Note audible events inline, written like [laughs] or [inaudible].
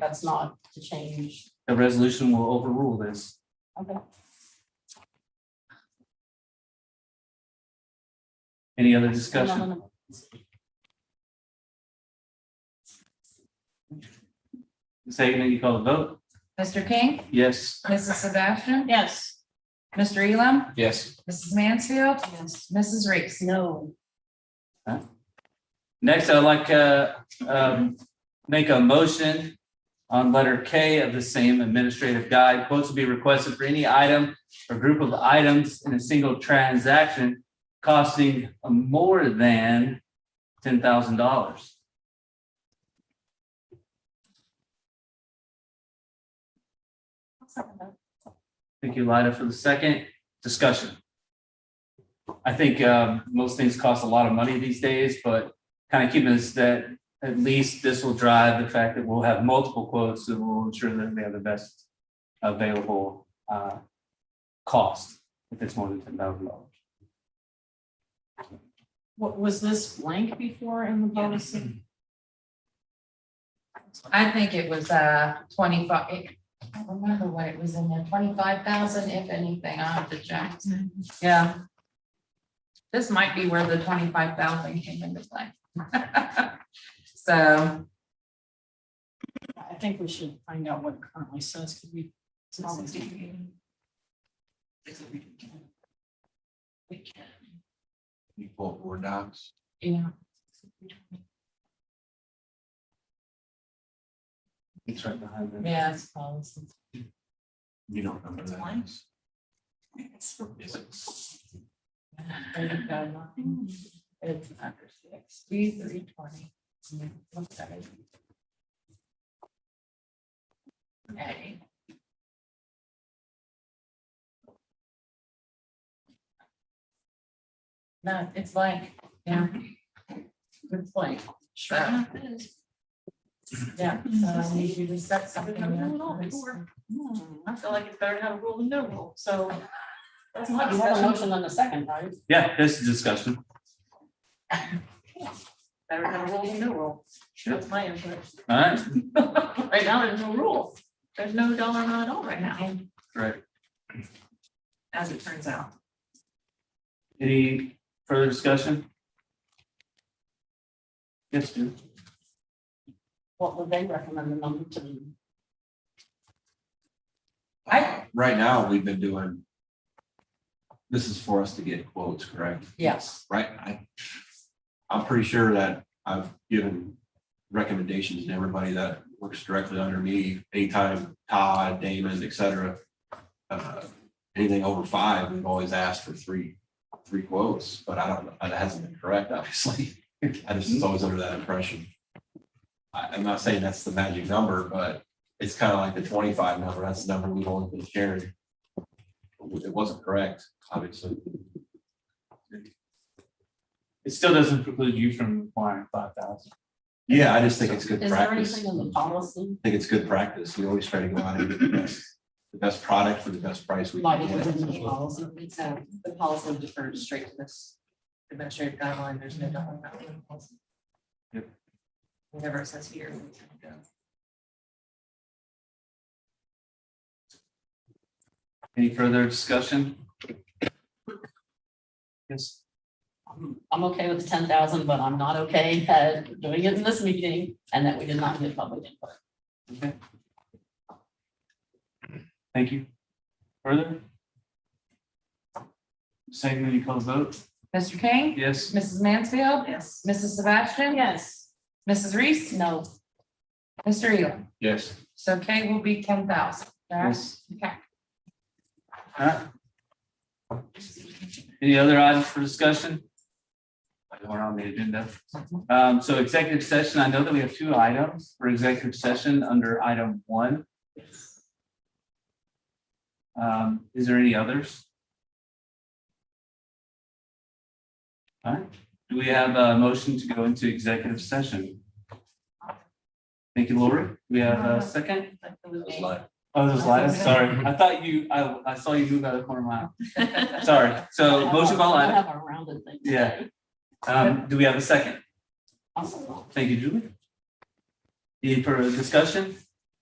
That's not to change. The resolution will overrule this. Okay. Any other discussion? Ms. Hagan, you call the vote? Mr. King, Yes. Mrs. Sebastian, Yes. Mr. Elam, Yes. Mrs. Mansfield, Yes. Mrs. Reese. No. Next, I'd like to um, make a motion on letter K of the same administrative guide. Quotes will be requested for any item or group of items in a single transaction costing more than ten thousand dollars. Thank you, Lida, for the second discussion. I think um, most things cost a lot of money these days, but kind of keeping this that at least this will drive the fact that we'll have multiple quotes that will ensure that they have the best available uh, cost if it's more than ten thousand dollars. What, was this blank before in the policy? I think it was uh twenty-five, it- I don't remember what it was in there, twenty-five thousand, if anything, I'll have to check. Yeah. This might be where the twenty-five thousand came into play. [laughs] So, I think we should find out what it currently says, because we. it's always- You pull four docs. yeah. It's right behind them. Yeah, it's policy. You don't remember It's that. mine. is- It's- is it? It's under six, three, three, twenty. Okay. No, it's like, yeah. It's like, so, yeah, so I need you to set I've something. been having a up little for this. before. I feel like it's better to have a rule than no rule, so. That's my You have a motion on the second, right? Yeah, this is discussion. [laughs] Better to have a rule than no rule. Sure. That's my input. All right, [laughs] Right now, there's no rule. There's no dollar amount at all right now, right. as it turns out. Any further discussion? Yes, Jim. What would they recommend the number to be? I- Right now, we've been doing. This is for us to get quotes, correct? Yes, Right? I, I'm pretty sure that I've given recommendations to everybody that works directly under me, anytime Todd, Damon, et cetera. Uh, Anything over five, we've always asked for three, three quotes, but I don't, know that hasn't been correct, obviously. [laughs] I just was always under that impression. I, I'm not saying that's the magic number, but it's kind of like the twenty-five number. That's the number we've always been sharing. It wasn't correct, obviously. It still doesn't preclude you from requiring five thousand. Yeah, I just think it's good Is there practice. I anything in the policy? think it's good practice. We always try to go out and get the best, the best product for the best price we Not can even in the get. policy, it's, uh, the policy defers straight to this administrative guideline, there's no double amount in the policy. Yep. Whatever it says here. Any further discussion? Yes, I'm- I'm okay with the ten thousand, but I'm not okay [laughs] uh, doing it in this meeting and that we did not get public input. okay. Thank you. Further? Segment, you call the vote? Mr. King, Yes. Mrs. Mansfield, Yes. Oh, Mrs. Sebastian, Yes. Mrs. Reese, No. Mr. Elam. Yes. So K will be ten thousand. Yes. Okay. Alright. Any other items for discussion? We're on the agenda. Um, so executive session, I know that we have two items for executive session under item one. Um, is there any others? Alright, do we have a motion to go into executive session? Thank you, Lori. We have a second? Oh, those Lyda, sorry. I thought you, I, I saw you move out of the corner of my eye. Sorry. So motion by I Lyda. have a rounded thing. Yeah. Um, do we have a second? Awesome. Thank you, Julie. Any further discussion?